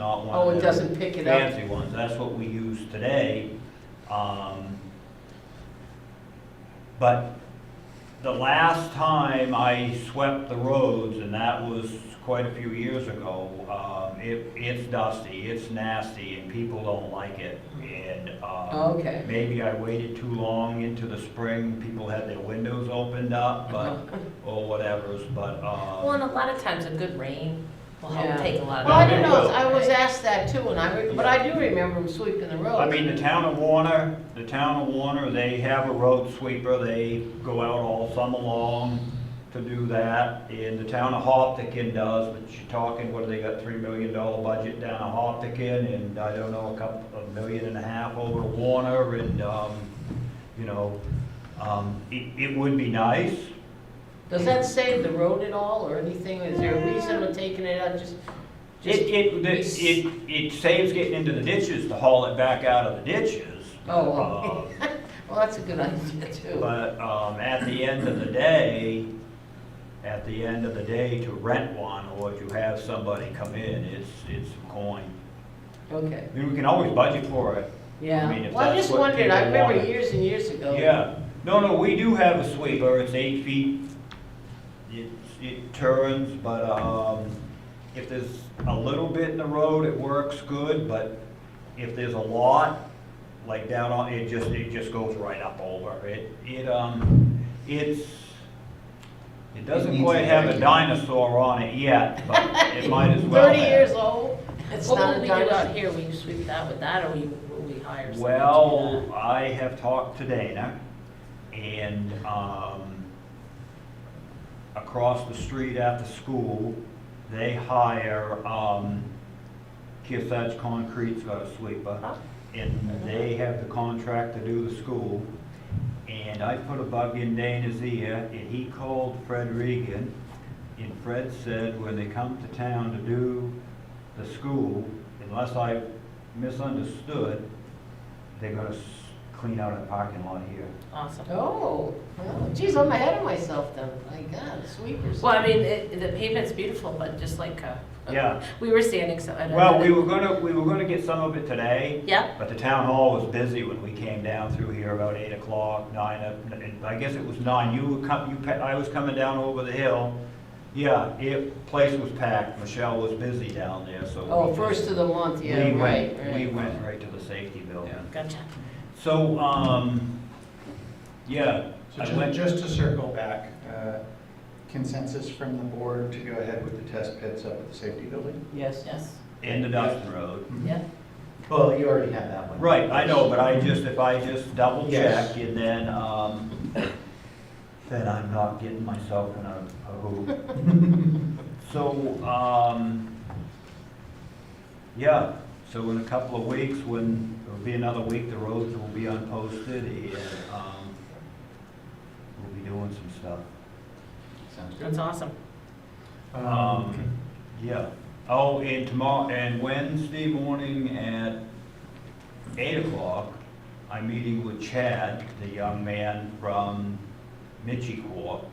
not one of Oh, it the doesn't pick it up? Fancy ones, that's what we use today. Um, But the last time I swept the roads, and that was quite a few years ago, um, it, it's dusty, it's nasty, and people don't like it, and, um, Oh, Okay. maybe I waited too long into the spring, people had their windows opened up, but, Uh-huh. or whatever's, but, um. Well, and a lot of times a good rain will Yeah. help take a lot of. Well, I that didn't away. know, I was asked that too, and I, re- but I do remember them sweeping the road. I mean, the town of Warner, the town of Warner, they have a road sweeper, they go out all summer long to do that. And the town of Hoptekin does, but you're talking, what, they got three million dollar budget down at Hoptekin and I don't know, a couple, a million and a half over to Warner and, um, you know, um, it, it would be nice. Does that save the road at all or anything? Is there a reason we're taking it out, just? It, just- it, the- it, it saves getting into the ditches to haul it back out of the ditches. Oh, Uh, well, well, that's a good idea too. But um, at the end of the day, at the end of the day, to rent one or to have somebody come in, it's, it's a coin. Okay, I mean, we can always budget for it. I mean, yeah. if Well, I that's just what wondered, I people remember wanted. years and years ago. Yeah. No, no, we do have a sweeper. It's eight feet. It, it turns, but um, if there's a little bit in the road, it works good, but if there's a lot, like down on, it just, it just goes right up over. It, it, um, it's, it doesn't needs quite a have a vacuum. dinosaur on it yet, but it might as well have. Thirty years old? It's What not will a we do dime out out here, will you sweep that with that, or will you- will we hire someone? to do that? Well, I have talked to Dana, and, um, across the street at the school, they hire, um, Kearsarge Concrete's got a sweeper, Huh? and they have the contract to do the school. And I put a bug in Dana's ear, and he called Fred Regan, and Fred said, when they come to town to do the school, unless I misunderstood, they're gonna s- clean out a parking lot here. Awesome. Oh, well, geez, I'm ahead of myself then. My God, sweepers. Well, I mean, it- the pavement's beautiful, but just like, uh, Yeah. we were standing so. at Well, we another- were gonna, we were gonna get some of it today, Yep, but the town hall was busy when we came down through here about eight o'clock, nine, uh, and I guess it was nine, you were com, you, pa- I was coming down over the hill. Yeah, it, place was packed, Michelle was busy down there, so. we Oh, just- first of the month, yeah, we right, went- right. We went right to the safety building. gotcha. So, um, yeah, So I went, ju- just to circle back, uh, consensus from the board to go ahead with the test pits up at the safety building? Yes. Yes, in the Dustin Road. yeah. Well, you already had that one. Right, I know, but I just, if I just double Yes. check and then, um, then I'm not getting myself in a a hoop. So, um, yeah, so in a couple of weeks, when, it'll be another week, the roads will be unposted and, um, we'll be doing some stuff. Sounds good. That's awesome. Um, yeah. Oh, and tomorrow, and Wednesday morning at eight o'clock, I'm meeting with Chad, the young man from Michicor.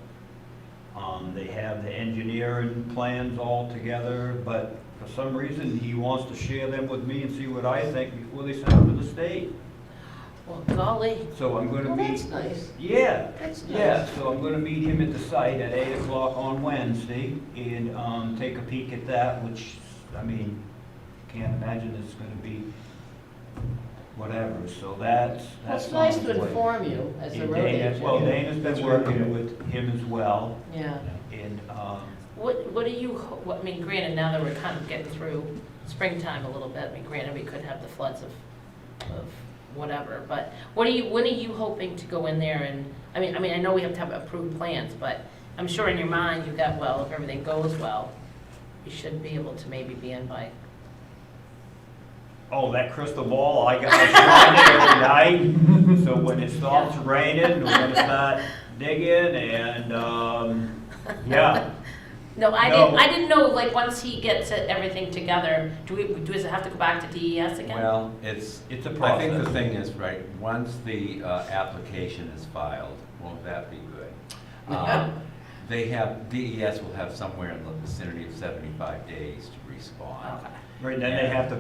Um, they have the engineering plans all together, but for some reason, he wants to share them with me and see what I think before they send them to the state. Well, golly, So I'm gonna Well, meet, that's nice. yeah, That's yeah, nice. so I'm gonna meet him at the site at eight o'clock on Wednesday and, um, take a peek at that, which, I mean, can't imagine it's gonna be whatever, so that's, that's. That's nice on to its way. inform you as a And road Dana- agent. Well, Yeah, Dana's that's been really working good. with him as well Yeah. and, um, what, what do you, ho- what- I mean, granted, now that we're kind of getting through springtime a little bit, I mean, granted, we could have the floods of, of whatever, but what are you, what are you hoping to go in there and, I mean, I mean, I know we have to have approved plans, but I'm sure in your mind, you've got, well, if everything goes well, you should be able to maybe be in by oh, that crystal ball, I got it every night. So when it stops raining, we're gonna start digging and, um, yeah. No, I No. didn't. I didn't know. Like once he gets it- everything together, do we? Does it have to go back to DES again? Well, it's, It's a I think process. the thing is, right, once the uh, application is filed, won't that be good? Um, E They have, DES will have somewhere in the vicinity of 75 days to respond. Okay. Right, then they have to